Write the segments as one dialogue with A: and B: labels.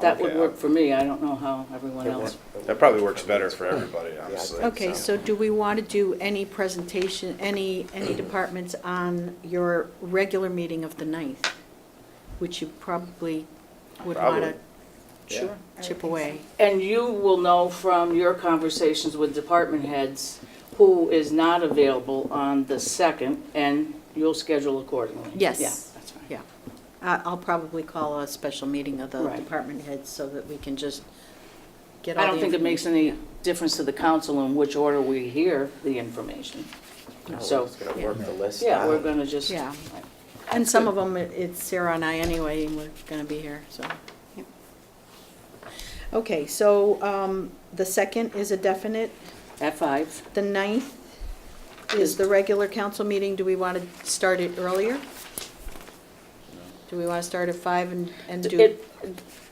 A: That would
B: Okay,
A: work for me, I don't know how everyone else.
B: That probably works better for everybody, honestly.
C: Okay, so do we want to do any presentation, any, any departments on your regular meeting of the 9th? Which you probably would want
B: Probably.
C: to
A: Sure.
C: chip away.
A: And you will know from your conversations with department heads who is not available on the second, and you'll schedule accordingly.
C: Yes.
A: Yeah, that's fine.
C: Yeah. I- I'll probably call a special meeting of the
A: Right.
C: department heads so that we can just get all
A: I
C: the
A: don't think it makes
C: information.
A: any difference to the council in which order we hear the information. So,
D: It's gonna work the list
A: yeah, we're
D: out.
A: gonna just.
C: Yeah. And some of them, it- it's Sarah and I anyway, and we're going to be here, so. yep. Okay, so um, the second is a definite.
A: At five,
C: The 9th is the regular council meeting. Do we want to start it earlier? Do we want to start at 5 and and do?
A: It-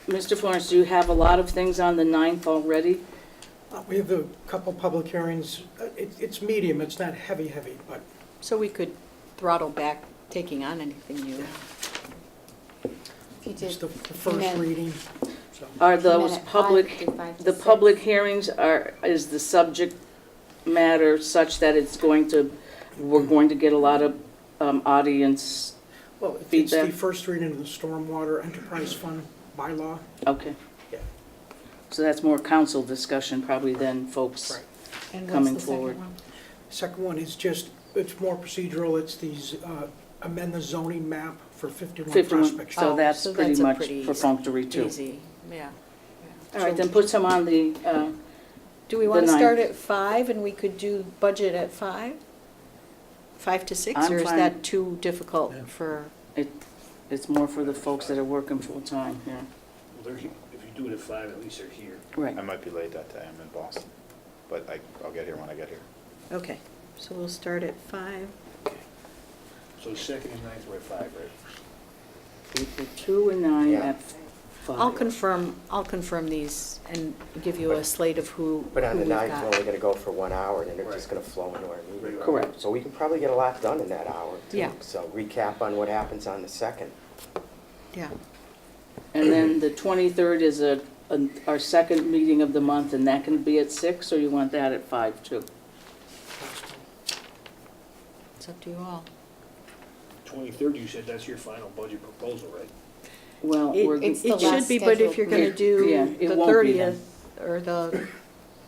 A: Mr. Florence, do you have a lot of things on the ninth already?
E: Uh, We have a couple public hearings. Uh, it- It's medium, it's not heavy, heavy, but
C: So we could throttle back taking on anything new.
F: If you
E: it's
F: did
E: the the first
F: Amen.
E: reading. so.
A: Are
F: came in
A: those
F: at five,
A: public,
F: did five to
A: the
F: six.
A: public hearings are, is the subject matter such that it's going to, we're going to get a lot of um, audience?
E: Well, it's- it's the
A: feedback?
E: first reading of the Stormwater Enterprise Fund bylaw.
A: Okay.
E: Yeah.
A: So that's more council discussion probably than folks.
C: And what's
A: Coming
C: the second
A: forward.
C: one?
E: Second one is just, it's more procedural, it's these, uh, amend the zoning map for 51
A: 51,
E: Prospect Street.
A: so
C: Oh,
A: that's
C: so
A: pretty
C: that's a
A: much
C: pretty
A: perfunctory too.
C: Easy, yeah.
A: All right, then put some on the, uh,
C: Do we
A: The
C: want to start
A: 9th.
C: at 5 and we could do budget at 5? 5 to 6,
A: I'm
C: or is
A: fine.
C: that too difficult for?
A: it, it's more for the folks that are working full-time here.
G: Well, There's, if you do it at five, at least they're here.
A: Right.
B: I might be late that day, I'm in Boston, but I, I'll get here when I get here.
C: Okay, so we'll start at 5.
G: So second and ninth were at five, right?
A: April Two and nine
D: Yeah.
A: at
C: I'll
A: five.
C: confirm, I'll confirm these and give you a slate of who
D: But on the
C: who we've
D: ninth, we're only
C: got.
D: gonna go for one hour, and then they're just gonna
G: Right.
D: flow into our meeting.
A: Correct.
D: So we can probably get a lot done in that hour, too.
C: Yeah.
D: So recap on what happens on the second.
C: Yeah,
A: And then the twenty-third is a, an- our second meeting of the month, and that can be at six, or you want that at five too?
C: it's up to you all.
G: Twenty-third, you said that's your final budget proposal, right?
A: Well,
C: It-
A: we're,
F: it's-
A: g-
F: the
C: It should
F: last
C: be, but if
F: scheduled
C: you're going to
A: meeting. Yeah,
C: do
A: it
C: the
A: won't be then.
C: 30th or the,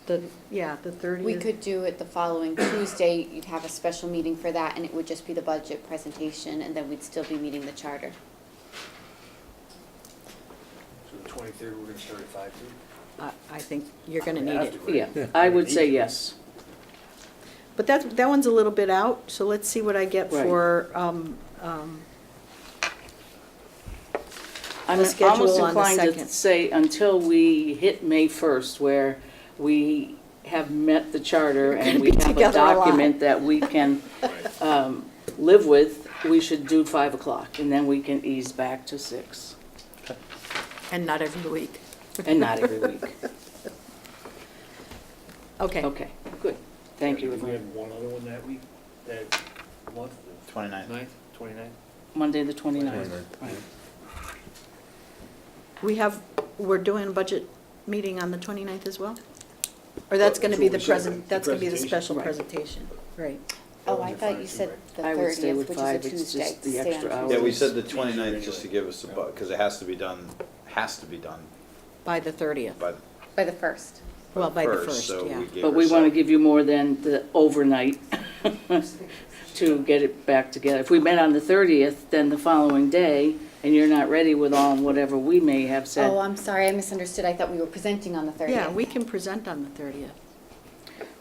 C: the, yeah, the 30th.
F: We could do it the following Tuesday, you'd have a special meeting for that, and it would just be the budget presentation, and then we'd still be meeting the charter.
G: So the twenty-third, we're gonna start at five too?
C: I I think you're going to need
G: Have
C: it.
G: to, right?
A: yeah, I would say yes.
C: But that, that one's a little bit out, so let's see what I get
A: Right.
C: for, um, um,
A: I'm
C: The schedule
A: almost
C: on the
A: inclined to
C: second.
A: say until we hit May first, where we have met the charter and we
C: be
A: have a
C: together a lot.
A: document that we can, um, live with, we should do five o'clock, and then we can ease back to six,
C: and not every week.
A: and not every week.
C: Okay,
A: Okay, good. Thank you,
G: Do we
A: Lorraine.
G: have one other one that week, that month? the
B: Twenty-ninth.
G: Ninth, twenty-ninth?
A: Monday, the 29th. Right.
C: we have, we're doing a budget meeting on the 29th as well? Or that's going to be the
G: That's what we said,
C: present,
G: the
C: that's going to be the
G: presentation.
C: special
A: Right.
C: presentation, right?
F: Oh, I thought you said the
A: I would stay
F: thirtieth,
A: with
F: which is a
A: five, it's
F: Tuesday.
A: just the
F: Stay on
A: extra
F: Tuesday.
A: hour.
B: Yeah, we said the 29th just to give us a, because it has to be done, has to be done
C: By the 30th.
B: by the
F: By the first.
C: Well, by the first,
B: so
C: yeah.
B: we gave
A: But we want to
B: ourselves-
A: give you more than the overnight to get it back together. If we met on the 30th, then the following day, and you're not ready with all whatever we may have
F: Oh,
A: said.
F: I'm sorry, I misunderstood, I thought we were presenting on the thirtieth.
C: Yeah, we can present on the 30th.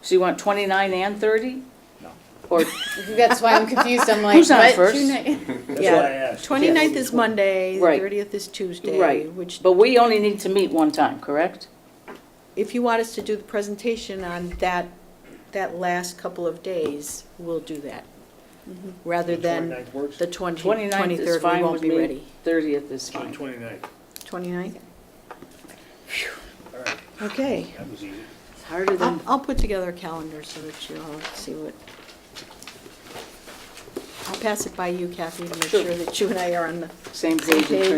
A: So you want 29 and 30?
B: No.
A: Or,
F: That's why I'm confused, I'm like,
A: Who's on
F: what?
A: first?
F: Tuesday?
G: That's
C: Yeah.
G: why I asked.
C: 29th is Monday, the
A: Right.
C: 30th is Tuesday,
A: right,
C: which,
A: but we only need to meet one time, correct?
C: if you want us to do the presentation on that, that last couple of days, we'll do that.
F: Mm-hmm.
C: Rather
G: The
C: than
G: 29th works?
C: the 20
A: 29th is
C: 23rd, we
A: fine
C: won't
A: with
C: be
A: me,
C: ready.
A: 30th is
G: So the
A: fine.
G: 29th.
C: 29th?
G: all right,
C: Okay.
G: that was easy.
A: It's harder
C: I'll,
A: than,
C: I'll put together a calendar so that you all see what. I'll pass it by you, Kathy, to make
A: Sure.
C: sure that you and I are on the
A: same
C: same
A: page in
C: page.